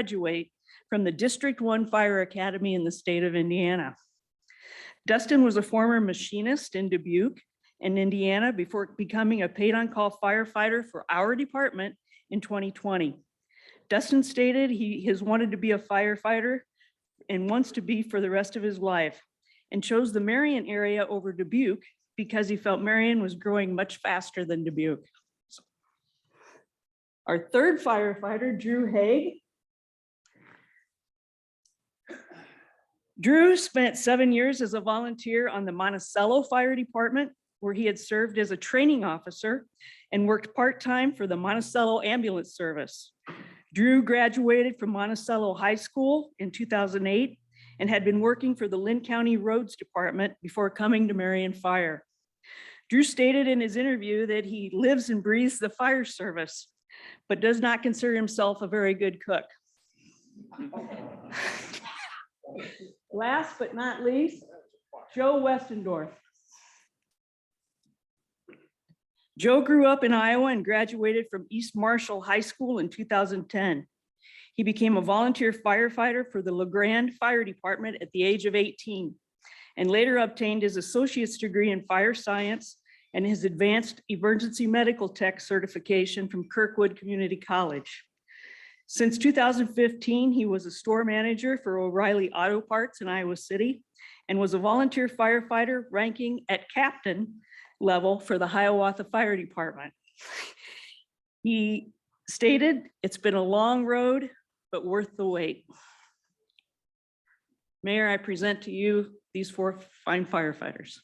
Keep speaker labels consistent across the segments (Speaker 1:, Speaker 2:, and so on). Speaker 1: graduate from the District One Fire Academy in the state of Indiana. Dustin was a former machinist in Dubuque and Indiana before becoming a paid-on-call firefighter for our department in 2020. Dustin stated he has wanted to be a firefighter and wants to be for the rest of his life and chose the Marion area over Dubuque because he felt Marion was growing much faster than Dubuque. Our third firefighter, Drew Haig, Drew spent seven years as a volunteer on the Monticello Fire Department, where he had served as a training officer and worked part-time for the Monticello Ambulance Service. Drew graduated from Monticello High School in 2008 and had been working for the Lynn County Roads Department before coming to Marion Fire. Drew stated in his interview that he lives and breathes the fire service, but does not consider himself a very good cook. Last but not least, Joe Westendorf. Joe grew up in Iowa and graduated from East Marshall High School in 2010. He became a volunteer firefighter for the LeGrand Fire Department at the age of 18 and later obtained his associate's degree in fire science and his advanced emergency medical tech certification from Kirkwood Community College. Since 2015, he was a store manager for O'Reilly Auto Parts in Iowa City and was a volunteer firefighter ranking at captain level for the Hiawatha Fire Department. He stated, "It's been a long road, but worth the wait." Mayor, I present to you these four fine firefighters.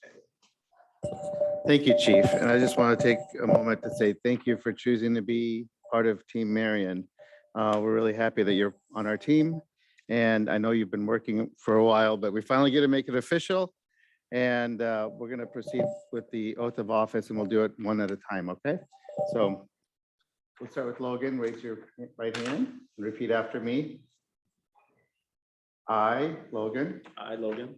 Speaker 2: Thank you, Chief. And I just want to take a moment to say thank you for choosing to be part of Team Marion. Uh, We're really happy that you're on our team. And I know you've been working for a while, but we finally get to make it official. And uh, we're going to proceed with the oath of office and we'll do it one at a time, okay? So we'll start with Logan. Raise your right hand and repeat after me. I, Logan,
Speaker 3: I, Logan,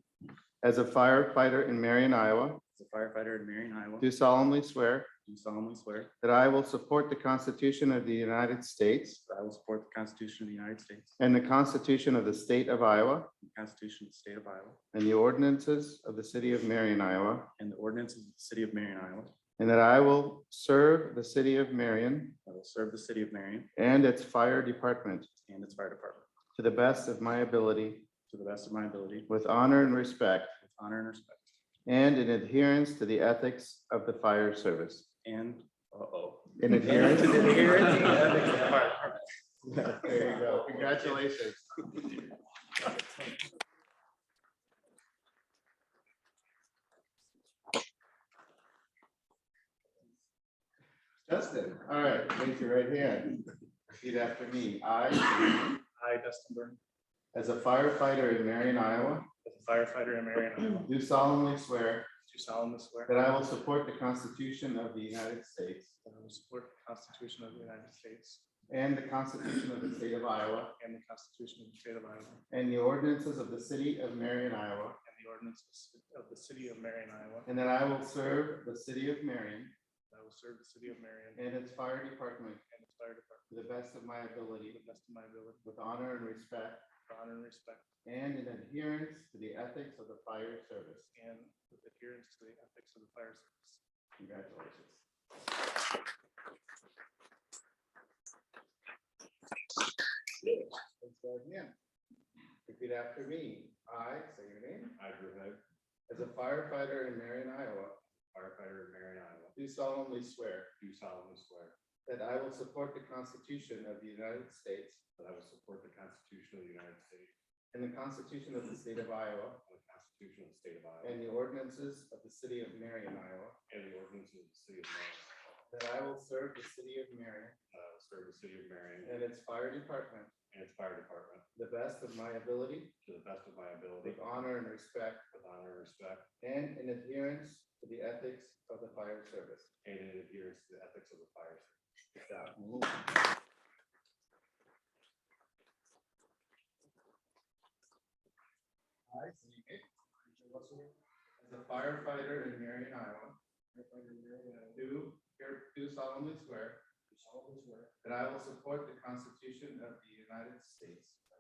Speaker 2: as a firefighter in Marion, Iowa,
Speaker 3: as a firefighter in Marion, Iowa,
Speaker 2: do
Speaker 3: do
Speaker 2: solemnly swear
Speaker 3: solemnly swear
Speaker 2: That I will support the Constitution of the United States
Speaker 3: that I will support the Constitution of the United States,
Speaker 2: and the Constitution of the State of Iowa
Speaker 3: the Constitution of the State of Iowa,
Speaker 2: and the ordinances of the City of Marion, Iowa,
Speaker 3: and the ordinances of the City of Marion, Iowa.
Speaker 2: and that I will serve the City of Marion
Speaker 3: I will serve the City of Marion
Speaker 2: and its Fire Department
Speaker 3: and its fire department
Speaker 2: to the best of my ability
Speaker 3: to the best of my ability, with
Speaker 2: with honor and respect
Speaker 3: honor and respect,
Speaker 2: and in adherence to the ethics of the fire service.
Speaker 3: and, uh-oh.
Speaker 2: In
Speaker 3: Adherence
Speaker 2: adherence.
Speaker 3: to the adherence to the ethics of the fire department.
Speaker 2: There you go. Congratulations. Justin, all right, raise your right hand. Repeat after me. I,
Speaker 4: I, Dustin Burn,
Speaker 2: as a firefighter in Marion, Iowa,
Speaker 4: as a firefighter in Marion, Iowa,
Speaker 2: do solemnly swear
Speaker 4: do solemnly swear
Speaker 2: that I will support the Constitution of the United States
Speaker 4: that I will support the Constitution of the United States
Speaker 2: and the Constitution of the State of Iowa
Speaker 4: and the Constitution of the State of Iowa and
Speaker 2: and the ordinances of the City of Marion, Iowa,
Speaker 4: the ordinances of the City of Marion, Iowa.
Speaker 2: and that I will serve the City of Marion
Speaker 4: that I will serve the City of Marion
Speaker 2: And its fire department
Speaker 4: and its fire department
Speaker 2: to the best of my
Speaker 4: to
Speaker 2: ability,
Speaker 4: the best of my ability,
Speaker 2: with honor and respect,
Speaker 4: with honor and respect,
Speaker 2: and in adherence to the ethics of the fire service.
Speaker 4: and with adherence to the ethics of the fire service.
Speaker 2: Congratulations. Let's go again. Repeat after me. I say your name.
Speaker 3: I, Drew Hood,
Speaker 2: As a firefighter in Marion, Iowa,
Speaker 3: firefighter in Marion, Iowa,
Speaker 2: do solemnly swear
Speaker 3: do solemnly swear
Speaker 2: that I will support the Constitution of the United States
Speaker 3: that I will support the Constitution of the United States
Speaker 2: and the Constitution of the State of Iowa
Speaker 3: and the Constitution of the State of
Speaker 2: And the ordinances of the city of Marion, Iowa.
Speaker 3: and the ordinances of the City of Marion,
Speaker 2: That I will serve the city of Marion
Speaker 3: that I will uh, serve the City of Marion
Speaker 2: and its fire department
Speaker 3: and its fire department
Speaker 2: to the best of my ability,
Speaker 3: to the best of my ability,
Speaker 2: with honor and respect,
Speaker 3: with honor and respect,
Speaker 2: and in adherence to the ethics of the fire service.
Speaker 3: and in adherence to the ethics of the fire. service. Good job.
Speaker 2: I, Sidney Gates, As a firefighter in Marion, Iowa. Do here- do solemnly swear. That I will support the Constitution of the United States